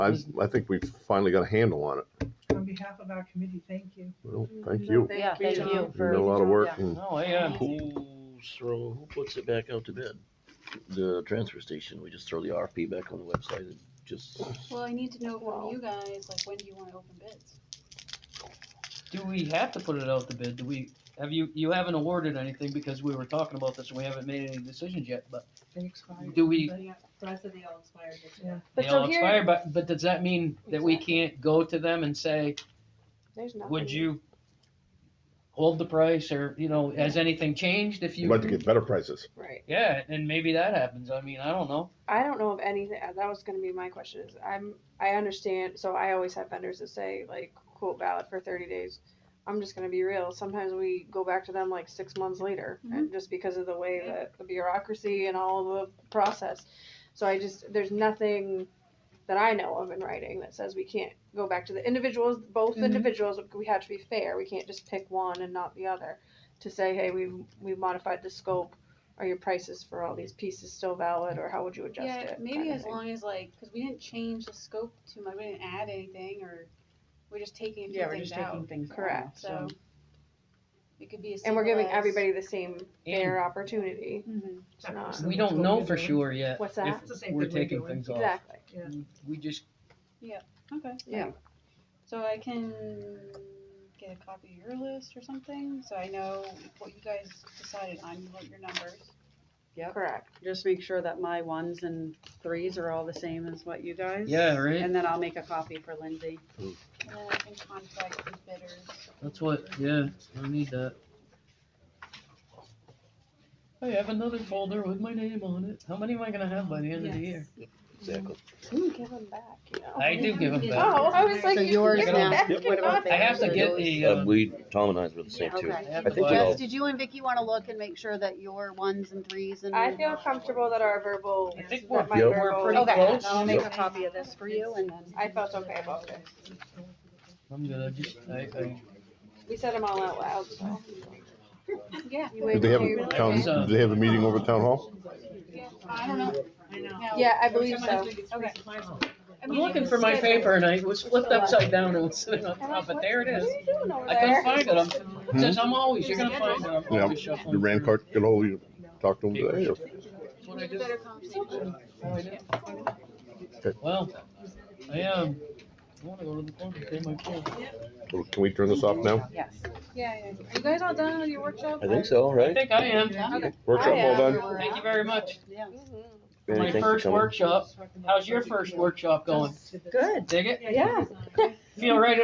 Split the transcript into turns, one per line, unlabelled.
I,
Mm-hmm.
I think we've finally got a handle on it.
On behalf of our committee, thank you.
Well, thank you.
Yeah, thank
John.
you.
You've done a lot of work
Yeah.
and
No, I, uh,
Amazing.
Who's throw, who puts it back out to bid? The transfer station, we just throw the RFP back on the website and just,
Well, I need to know from you guys, like, when do you wanna open bids?
do we have to put it out to bid? Do we, have you, you haven't awarded anything because we were talking about this and we haven't made any decisions yet, but
They expired.
do we,
The rest of the all expired this
Yeah.
year.
they
But so
all
here,
expire, but, but does that mean that we
Exactly.
can't go to them and say,
There's nothing.
would you hold the price or, you know, has anything changed if
we'd
you?
like to get better prices.
Right.
Yeah, and maybe that happens. I mean, I don't know.
I don't know of anything, that was gonna be my question, is I'm, I understand, so I always have vendors that say, like, quote valid for thirty days. I'm just gonna be real, sometimes we go back to them like six months later,
Mm-hmm.
and just because of the way that the bureaucracy and all the process. So I just, there's nothing that I know of in writing that says we can't go back to the individuals, both
Mm-hmm.
Mhm.
individuals, we have to be fair, we can't just pick one and not the other. To say, hey, we, we modified the scope, are your prices for all these pieces still valid, or how would you adjust
Yeah,
it?
maybe
kinda
as
thing.
long as like, cause we didn't change the scope too much, we didn't add anything or we're just taking a
yeah,
few
we're
things
just taking
out,
things out.
Correct.
so. It could be as
And we're giving
simple as-
everybody the same fair
And-
opportunity.
Mm-hmm.
Mhm.
It's not-
So
We
that's
don't
what
know
we're
for
doing.
sure yet.
What's that?
It's the
If
same
we're
thing we're
taking
doing.
things off.
Exactly.
Yeah.
We just,
Okay.
Yeah.
So I can get a copy of your list or something, so I know what you guys decided on, what your numbers.
Yep.
Correct.
Just make sure that my ones and threes are all the same as what you guys.
yeah, right?
And then I'll make a copy for Lindsay.
And then I can contact the bidders.
That's what, yeah, I need that. I have another folder with my name on it. How many am I gonna have by the end of the year?
exactly.
You give them back, you know?
I do give them back.
Oh, I was like,
So
you
yours
give
now.
them back.
What about
I have to get the, uh,
Uh, we, Tom and I were the same
Yeah,
too.
okay.
I
have
think
to
we
buy-
all,
Wes, did you and Vicky wanna look and make sure that your ones and threes and?
I feel comfortable that our verbal,
I think we're,
that my
Yep.
we're pretty
verbal,
Okay,
close.
I'll make a
Yep.
copy of this for you and then.
I felt okay about it.
I'm gonna just, I, I,
We said them all out loud, so.
Yeah.
You
Did
wait
they have
till
a
you-
town, did they have a meeting over at town hall?
I don't know.
I know.
No.
Yeah, I believe
Sometimes
so.
we get free
Okay.
supplies.
I
I'm
mean,
looking for my paper and I it was flipped upside down and was sitting on top, but there it
What are
is.
you doing over
I couldn't
there?
find it.
Hmm?
I'm, says I'm always, you're gonna find it. I'm
Yeah.
always shuffling.
Did Rand Clark get ahold of you, talk to him today? or-
That's what I do.
Better conversation.
Oh, Well, I, um, I wanna go to the phone, pay my bill.
Well, Can we turn this off now?
Yes.
Yeah, yeah. Are you guys all done with your workshop?
I think so,
I
right?
think I am.
Workshop all done?
Thank you very much.
Yeah.
Mhm.
For
Mary,
my
thanks for
first
coming.
workshop, how's your first workshop going?
Good.
Dig it?
Yeah.
Feel right